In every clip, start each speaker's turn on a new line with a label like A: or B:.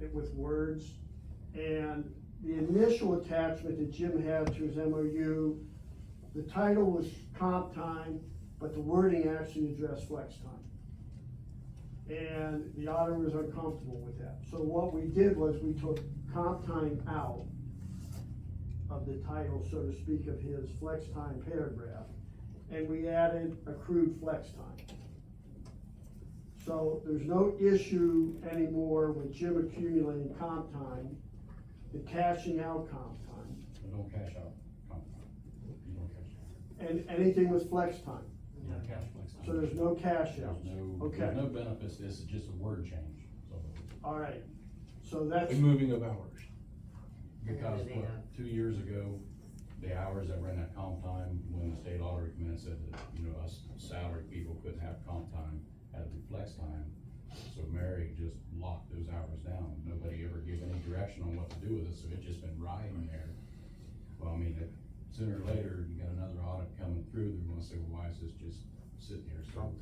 A: it with words. And the initial attachment that Jim had to his MOU, the title was comp time, but the wording actually addressed flex time. And the auditor was uncomfortable with that. So what we did was we took comp time out of the title, so to speak, of his flex time paragraph, and we added accrued flex time. So there's no issue anymore with Jim accumulating comp time, the cashing out comp time,
B: But no cash out, comp time. You don't cash out.
A: and anything with flex time.
B: No cash flex time.
A: So there's no cash
B: There's
A: outs.
B: no, there's
A: Okay,
B: no benefits, this is just a word change, so.
A: all right. So that's,
C: moving of hours.
B: Because, what, two years ago, the hours that ran that comp time, when the state lottery committee said that, you know, us salaried people couldn't have comp time, had to be flex time. So Mary just locked those hours down, nobody ever gave any direction on what to do with it, so it's just been riding there. Well, I mean, it- sooner or later, you got another audit coming through, they're gonna say, well, why is this just sitting here? So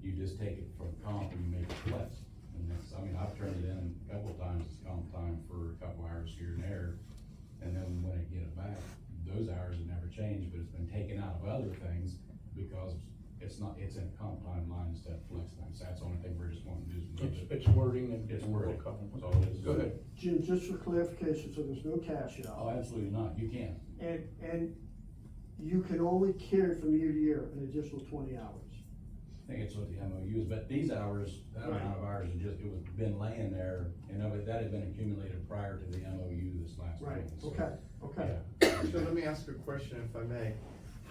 B: you just take it from comp and you make it flex. And that's, I mean, I've turned it in a couple of times, it's comp time for a couple hours here and there. And then when I get it back, those hours have never changed, but it's been taken out of other things because it's not, it's in comp time line instead of flex time. So that's the only thing we're just wanting to do is move
C: It's,
B: it.
C: it's wording and.
B: It's wording. That's
C: Go
B: all it is.
C: ahead.
A: Jim, just for clarification, so there's no cash out.
B: Oh, absolutely not. You can't.
A: And, and you can only carry from year to year an additional twenty hours.
B: I think it's what the MOU is, but these hours, that amount of hours, it just, it was been laying there. And of it, that had been accumulated prior to the MOU this last week.
A: Right,
B: So,
A: okay, okay.
D: So let me ask a question if I may.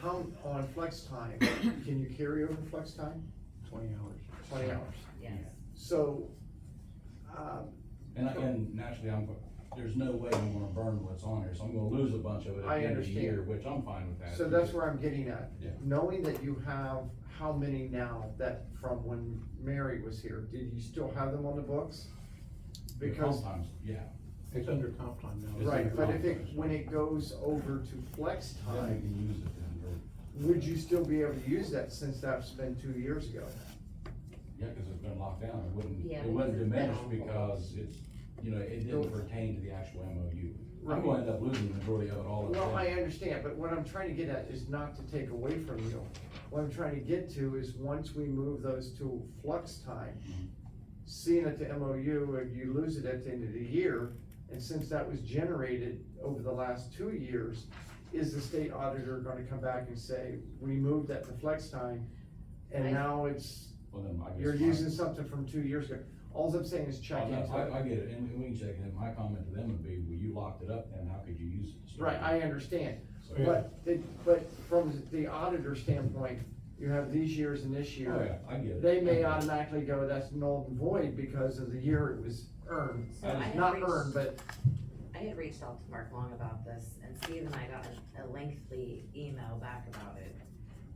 D: How, on flex time, can you carry over flex time?
C: Twenty hours.
D: Twenty hours.
E: Yes,
D: So, um,
B: And, I- and naturally, I'm, there's no way I'm gonna burn what's on here, so I'm gonna lose a bunch of it at
D: I
B: the end of the
D: understand.
B: year, which I'm fine with that.
D: so that's where I'm getting at.
B: Yeah.
D: Knowing that you have how many now that from when Mary was here, did you still have them on the books?
B: The
D: Because,
B: compounds, yeah,
C: It's under comp time now.
B: It's
D: right,
B: under
D: but if it,
B: compromise.
D: when it goes over to flex
B: then we
D: time,
B: can use it then, or-
D: would you still be able to use that since that's been two years ago?
B: yeah, cause it's been locked down, it wouldn't,
E: Yeah,
B: it wouldn't
E: because it's been
B: diminish
E: on hold.
B: because it's, you know, it
D: No.
B: didn't pertain to the actual MOU. I'm
D: Right.
B: gonna end up losing the majority of it all. at
D: Well,
B: once.
D: I understand, but what I'm trying to get at is not to take away from you. What I'm trying to get to is once we move those to flux time, seeing it to MOU, and you lose it at the end of the year, and since that was generated over the last two years, is the state auditor gonna come back and say, we moved that to flex time, and
E: I-
D: now it's,
B: Well, then I guess.
D: you're
B: my-
D: using something from two years ago? All I'm saying is check
B: Oh, no,
D: into it.
B: I, I get it, and we can check it, and my comment to them would be, well, you locked it up, then how could you use it?
D: Right, I understand.
B: So-
D: But, the- but from the auditor standpoint, you have these years and this
B: Oh, yeah,
D: year.
B: I get it.
D: They may
B: I get it.
D: automatically go, that's null and void because of the year it was earned.
E: So I had
D: Not
E: reached-
D: earned, but,
E: I had reached out to Mark Long about this, and Steve and I got a- a lengthy email back about it.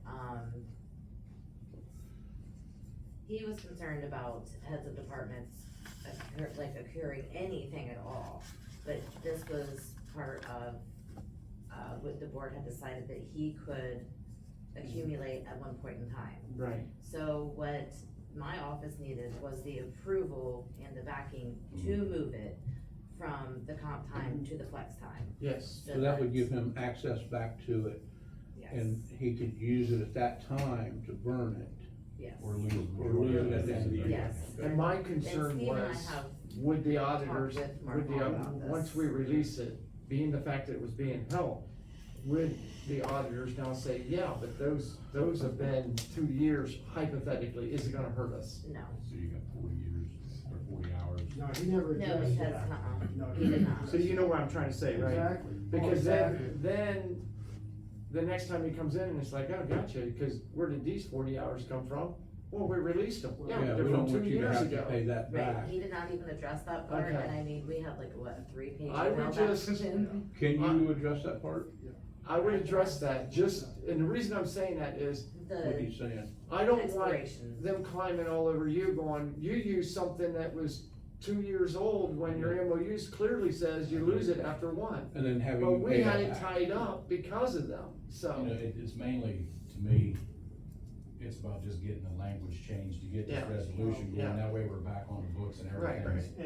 E: Um, He was concerned about heads of departments, occur- like occurring anything at all, but this was part of, uh, what the board had decided that he could accumulate at one point in time.
D: right,
E: So what my office needed was the approval and the backing to
C: Mm-hmm.
E: move it from the comp time to the flex time.
D: yes.
C: So that would give him access back to it
E: Yes,
C: and he could use it at that time to burn it.
E: Yes,
B: Or lose. the
C: Or
B: majority
C: lose
B: of
C: it at the end of the year.
E: yes.
D: And my
E: And
D: concern
E: Steve and I
D: was,
E: have,
D: would the auditors,
E: talked with Mark
D: would the,
E: about this.
D: once we release it, being the fact that it was being held, would the auditors now say, yeah, but those, those have been two years hypothetically, is it gonna hurt us?
E: no,
B: So you got forty years or forty hours.
A: No, he never
E: no,
A: addressed
E: because,
A: that.
E: uh-uh,
A: No,
E: he did not.
D: So you know what I'm trying to say, right?
A: Exactly.
D: Because
A: Exactly.
D: then, then, the next time he comes in and it's like, oh, gotcha, because where did these forty hours come from? Well, we released them, yeah,
C: Yeah, we
D: they're from
C: don't
D: two
C: want you to
D: years
C: have to
D: ago.
C: pay that
E: Right,
C: back.
E: he did not even address that part,
D: Okay.
E: and I mean, we had like, what, a three page
D: I would
E: email back
D: just-
E: to Jim?
C: Can
B: Uh,
C: you address that part?
D: I would address that, just, and the reason I'm saying that is,
C: What
E: The
C: he's saying?
D: I don't want
E: expiration.
D: them climbing all over you going, you used something that was two years old when your MOUs clearly says you lose it after one.
C: And then having.
D: But
C: you
D: we
C: pay
D: had
C: that
D: it
C: back.
D: tied up because of them, so.
B: You know, it, it's mainly, to me, it's about just getting the language changed to get this
D: Yeah.
B: resolution
D: Yeah.
B: going, that way we're back on the books and
D: Right,
B: everything.
D: right.